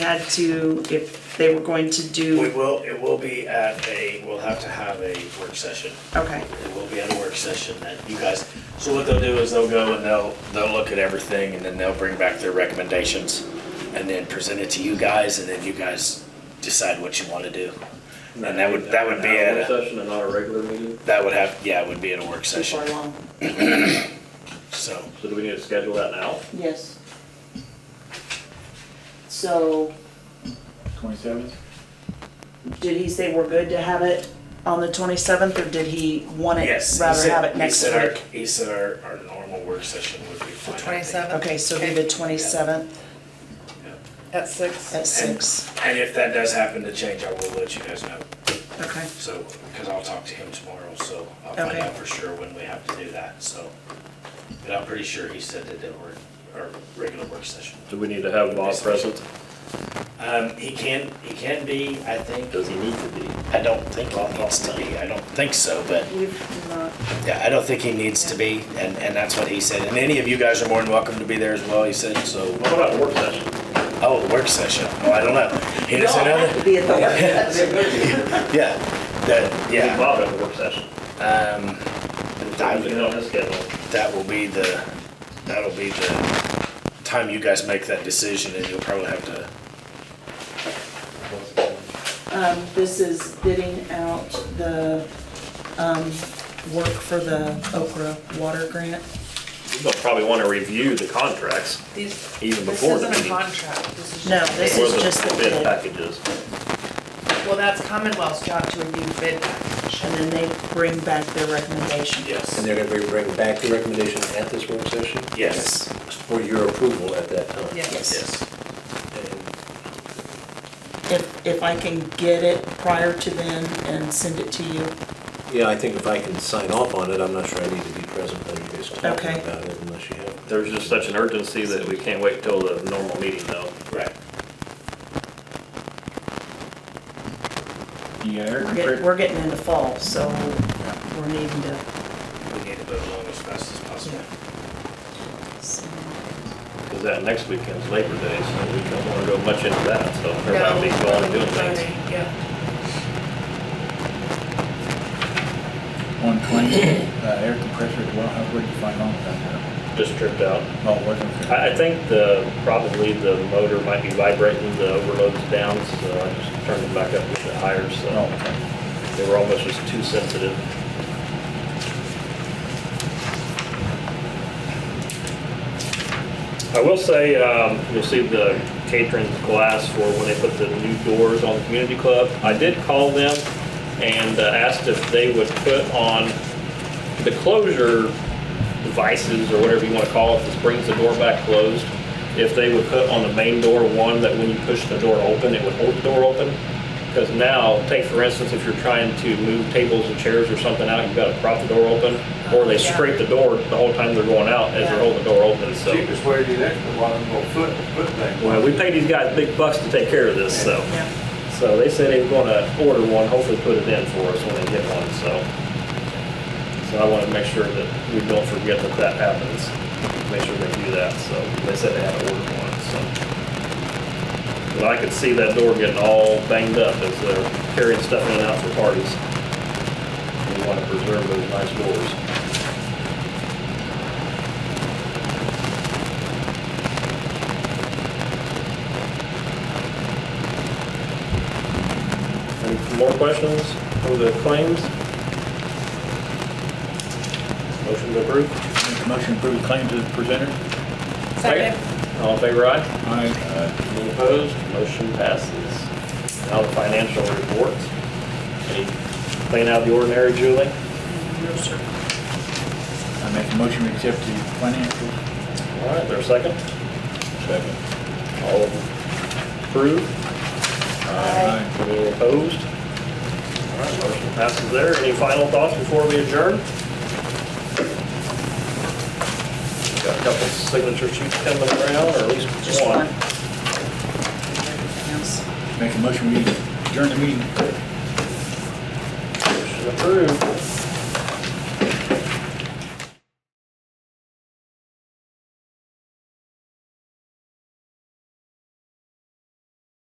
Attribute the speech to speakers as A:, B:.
A: had to, if they were going to
B: We
A: do,
B: will, it will be at a, we'll have to have a work session.
A: okay,
B: It will be at a work session that you guys, so what they'll do is they'll go and they'll, they'll look at everything and then they'll bring back their recommendations and then present it to you guys and then you guys decide what you want to do. And that would, that would be
C: An hour
B: at, a-
C: Session and not a regular meeting,
B: that would have, yeah, it would be at a work
A: too far
B: session,
A: along.
B: so.
C: so do we need to schedule that now?
A: Yes. So,
D: Twenty-seventh?
A: did he say we're good to have it on the twenty-seventh, or did he want it,
B: Yes. he
A: rather
B: said-
A: have it
B: he
A: next
B: said our-
A: week?
B: He said our, our normal work session would be fine. I think.
E: Twenty-seventh?
A: Okay, so it'll be the twenty-seventh
E: At six?
A: at six,
B: And if that does happen to change, I will let you guys know.
A: okay,
B: So, because I'll talk to him tomorrow, so I'll find
A: Okay.
B: out for sure when we have to do that, so. But I'm pretty sure he said that there were, our regular work session.
C: Do we need to have Bob present?
B: Um, he can, he can be, I think.
C: Does he need to be?
B: I don't think he needs to be, I don't think so, but
A: we've not,
B: yeah, I don't think he needs to be, and, and that's what he said. And any of you guys are more than welcome to be there as well, he said, so.
C: What about a work session?
B: Oh, work session, well, I don't know. He
A: we all
B: doesn't know
A: have to
B: that?
A: be at the work
B: Yeah, that,
C: Need
B: yeah.
C: Bob at the work session.
B: Um, I
C: We
B: would-
C: can on his schedule.
B: that will be the, that'll be the time you guys make that decision and you'll probably have to,
A: Um, this is bidding out the, um, work for the Oak Grove Water Grant.
C: You'll probably want to review the contracts
E: These,
C: even
E: this
C: before the
E: isn't a
C: meeting.
E: contract, this is just.
A: No,
E: a
A: this
C: or
A: is just the
C: Bid
A: bid.
C: packages.
E: bid. Well, that's Commonwealth's job to review bid package.
A: And then they bring back their recommendation.
B: yes,
F: And they're gonna be bringing back the recommendation at this work session
B: yes,
F: for your approval at that time.
E: Yes.
B: yes.
A: If, if I can get it prior to then and send it to you,
F: Yeah, I think if I can sign off on it, I'm not sure I need to be present when you guys talk
A: Okay.
F: about it unless you have.
C: There's just such an urgency that we can't wait till the normal meeting though.
B: Right.
D: You got
A: we're getting,
D: Eric?
A: we're getting into fall, so we're needing to.
B: We need to move along as fast as possible.
A: so-
C: Because that next weekend's Labor Day, so we don't want to go much into that, so there might be
E: No,
C: going and doing
E: voting,
C: things.
E: Yeah,
D: One twenty, uh, air compressor as well, how, where'd you find all that?
C: Just tripped out.
D: Oh, wasn't
C: I, I think the, probably the motor might be vibrating, the overload's down, so I just turned it back up a little bit higher,
D: Oh,
C: so
D: okay.
C: they were almost just too sensitive. I will say, um, you'll see the Catrins glass for when they put the new doors on the community club. I did call them and uh, asked if they would put on the closure devices or whatever you want to call it, this brings the door back closed, if they would put on the main door one that when you push the door open, it would hold the door open. Because now, take for instance, if you're trying to move tables and chairs or something out, you've got to prop the door open, or they
E: Yeah.
C: scrape the door the whole time they're going out as they're
E: Yeah.
C: holding the door open, so.
G: Cheapest way to do that, the one little foot, foot thing.
C: Well, we pay these guys big bucks to take care of this, so.
A: Yeah,
C: So they said they were gonna order one, hopefully put it in for us when they get one, so. So I wanna make sure that we don't forget that that happens, make sure they do that, so they said they had to order one, so. But I could see that door getting all banged up as they're carrying stuff in and out for parties. We wanna preserve those nice doors. Any more questions for the claims? Motion to approve?
D: Make a Motion approved claims as presented.
E: second.
C: All in favor, aye?
D: Aye.
C: Any opposed? Motion passes. Now the financial reports. Anything out of the ordinary, Julie?
A: no, sir.
D: I make a motion to accept the financials.
C: All right, there a second?
D: Second.
C: All approved?
D: Aye.
C: Any opposed? All right, motion passes there. Any final thoughts before we adjourn? Got a couple signature sheets coming around, or at least
A: Just one.
C: one.
A: Everything else.
D: Make a motion, we adjourn the meeting.
C: Motion approved.